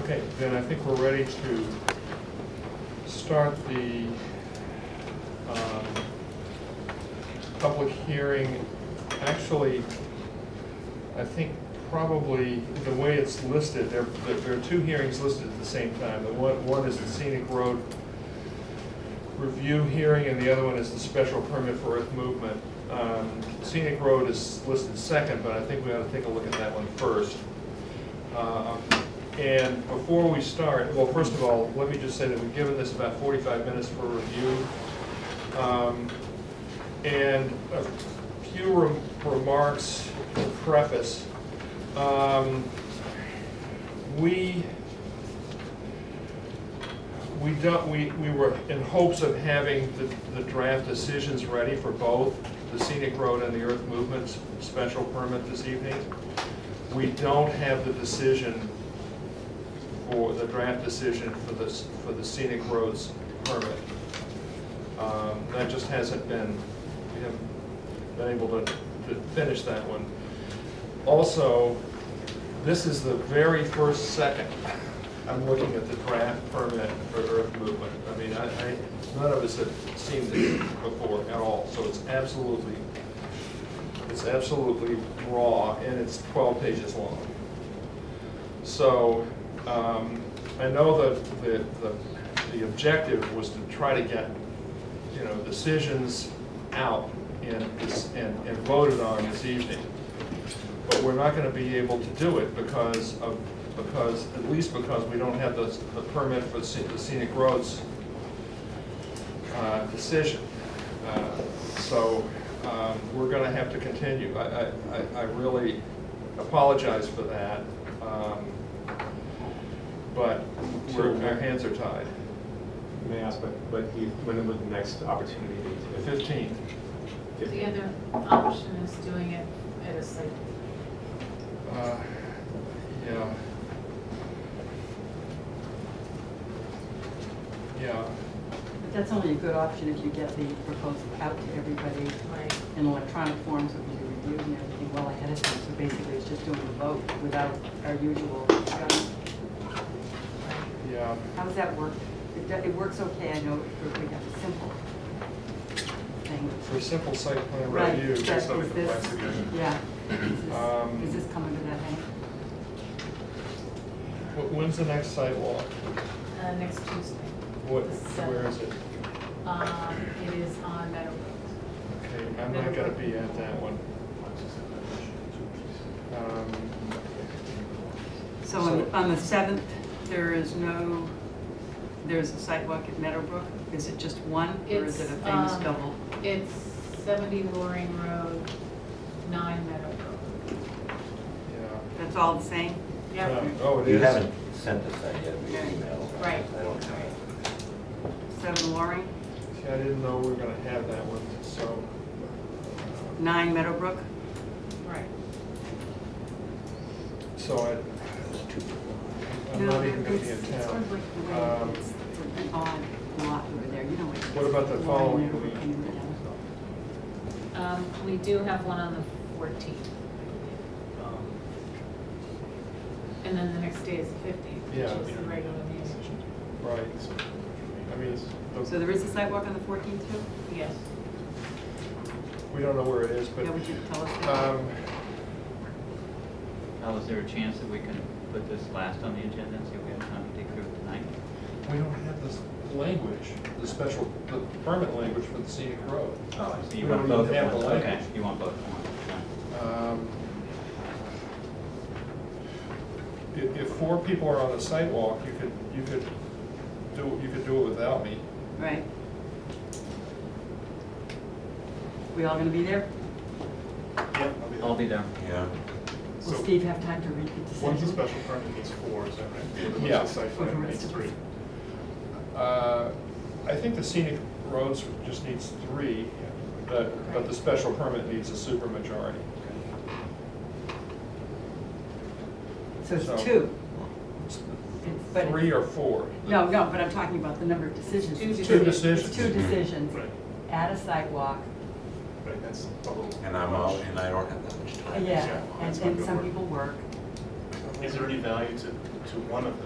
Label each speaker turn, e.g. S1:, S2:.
S1: Okay, then I think we're ready to start the um, public hearing. Actually, I think probably the way it's listed, there, there are two hearings listed at the same time. The one, one is the scenic road review hearing, and the other one is the special permit for earth movement. Um, Scenic road is listed second, but I think we ought to take a look at that one first. Um, And before we start, well, first of all, let me just say that we've given this about forty-five minutes for review. Um, And a few rem- remarks to preface. Um, We, we don't, we, we were in hopes of having the, the draft decisions ready for both the scenic road and the earth movement special permit this evening. We don't have the decision for, the draft decision for this, for the scenic roads permit. Um, that just hasn't been, we haven't been able to, to finish that one. Also, this is the very first second I'm looking at the draft permit for earth movement. I mean, I, I, none of us have seen this before at all, so it's absolutely, it's absolutely raw, and it's twelve pages long. So, um, I know that the, the, the objective was to try to get, you know, decisions out and, dis- and, and voted on this evening but we're not gonna be able to do it because of, because, at least because we don't have the, the permit for the scenic roads uh, decision. Uh, So, um, we're gonna have to continue. I, I- I, I really apologize for that. um, But we're, our hands are tied.
S2: May I ask, but, but you- when would the next opportunity be? to-
S1: Fifteen,
S2: Fifteen.
S3: The other option is doing it at a site.
S1: uh, yeah. Yeah.
S4: But that's only a good option if you get the proposal out to everybody
S3: Right.
S4: in electronic form so it can be reviewed and everything well ahead of time. So basically, it's just doing the vote without our usual,
S1: Yeah,
S4: how does that work? It do- It works okay, I know, if we have a simple thing.
S1: for simple site plan
S4: Right,
S1: review.
S4: that
S1: that's not
S4: is
S1: the plan
S4: this-
S1: together.
S4: Yeah. Is this-
S1: Um,
S4: Does this come under that heading?
S1: Wh- When's the next site walk?
S3: Uh, next Tuesday.
S1: What,
S3: The seventh.
S1: where is it?
S3: Um, it is on Meadow Brook.
S1: Okay, I'm not gonna be at that one. Um,
S4: So on-
S1: So-
S4: on the 7th, there is no, there's a sidewalk at Meadowbrook? Is it just one, or is it a
S3: It's,
S4: famous
S3: um,
S4: double?
S3: It's seventy Loring Road, nine Meadow Brook.
S1: Yeah.
S4: That's all the same?
S3: Yep.
S1: Um, Oh, it
S5: You
S1: is?
S5: haven't sent us that yet, we
S4: Okay.
S5: emailed.
S3: Right.
S5: I don't have it.
S4: 7 Loring,
S1: See, I didn't know we were gonna have that one, so.
S4: 9 Meadowbrook?
S3: Right.
S1: So I, I'm not even gonna be in
S4: It's- It's sort of
S1: town.
S4: like the
S1: Um,
S4: way, it's it's an odd lot over there, you know what?
S1: What about the
S4: Loring
S1: following
S4: and
S1: week?
S4: everything right
S3: Um, we do have one on the fourteenth. And then the next day is the fifteenth, which
S1: Yeah.
S3: is the regular meeting.
S1: Right. I mean, it's-
S4: now. So there is a sidewalk on the 14th too?
S3: Yes.
S1: we don't know where it is, but.
S4: Yeah, would you tell us that?
S1: Um,
S6: Now, Oh, is there a chance that we can put this last on the agenda and see if we have time to dig through it tonight?
S1: we don't have this language, the special, the permit language for the scenic road.
S6: Oh, I see. You
S1: We
S6: want
S1: don't
S6: both
S1: even
S6: at
S1: have
S6: once.
S1: the
S6: Okay,
S1: language.
S6: you want both at once. okay.
S1: Um, If, if four people are on a sidewalk, you could, you could do, you could do it without me.
S4: Right. We all gonna be there?
S1: Yep.
S6: I'll be there.
S4: Will
S1: So,
S4: Steve have time to read the decision?
S7: One's a special permit, it's four, is that right?
S1: Yeah.
S7: One's a site
S4: Or the
S7: plan,
S4: rest
S7: it's
S4: of
S7: three.
S4: us.
S1: uh, I think the scenic roads just needs three, but, but the special permit needs a supermajority.
S4: So
S1: so-
S4: it's two. But it-
S1: Three or four.
S4: No, no, but I'm talking about the number of decisions.
S3: Two
S4: It's
S1: Two
S4: It's
S1: decisions. Mm-hmm.
S4: two decisions
S7: Right.
S4: at a sidewalk,
S7: Right, that's a little.
S5: And I'm out, and I don't have that much time.
S4: yeah,
S7: Yeah,
S4: and
S7: that's not
S4: and
S7: gonna
S4: some
S7: work.
S4: people work.
S7: Is there any value to, to one of those